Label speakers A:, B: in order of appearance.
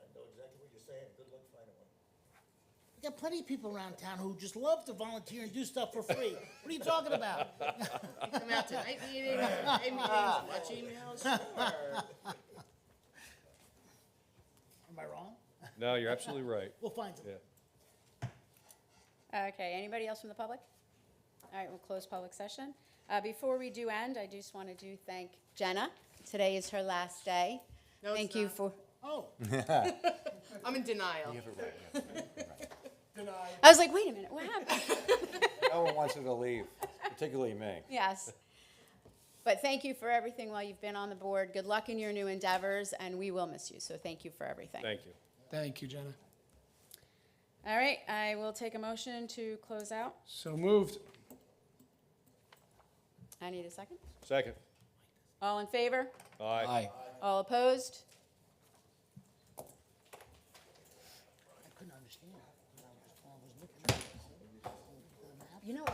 A: You got plenty of people around town who just love to volunteer and do stuff for free. What are you talking about?
B: Come out to night meetings, day meetings, watch emails.
A: Am I wrong?
C: No, you're absolutely right.
A: We'll find them.
C: Yeah.
D: Okay, anybody else from the public? All right, we'll close public session. Uh, Before we do end, I just want to do thank Jenna. Today is her last day.
B: No, it's
D: Thank you
B: not.
D: for,
A: Oh,
B: I'm in denial.
D: I was like, wait a minute, what happened?
E: No one wants her to leave, particularly me.
D: Yes. But thank you for everything while you've been on the board. Good luck in your new endeavors, and we will miss you, so thank you for everything.
C: Thank you.
F: Thank you, Jenna.
D: All right, I will take a motion to close out.
F: So moved.
D: I need a second.
C: Second.
D: All in favor?
C: Aye.
D: All opposed?
A: I couldn't understand. I was looking at the whole- whole map.
D: You know,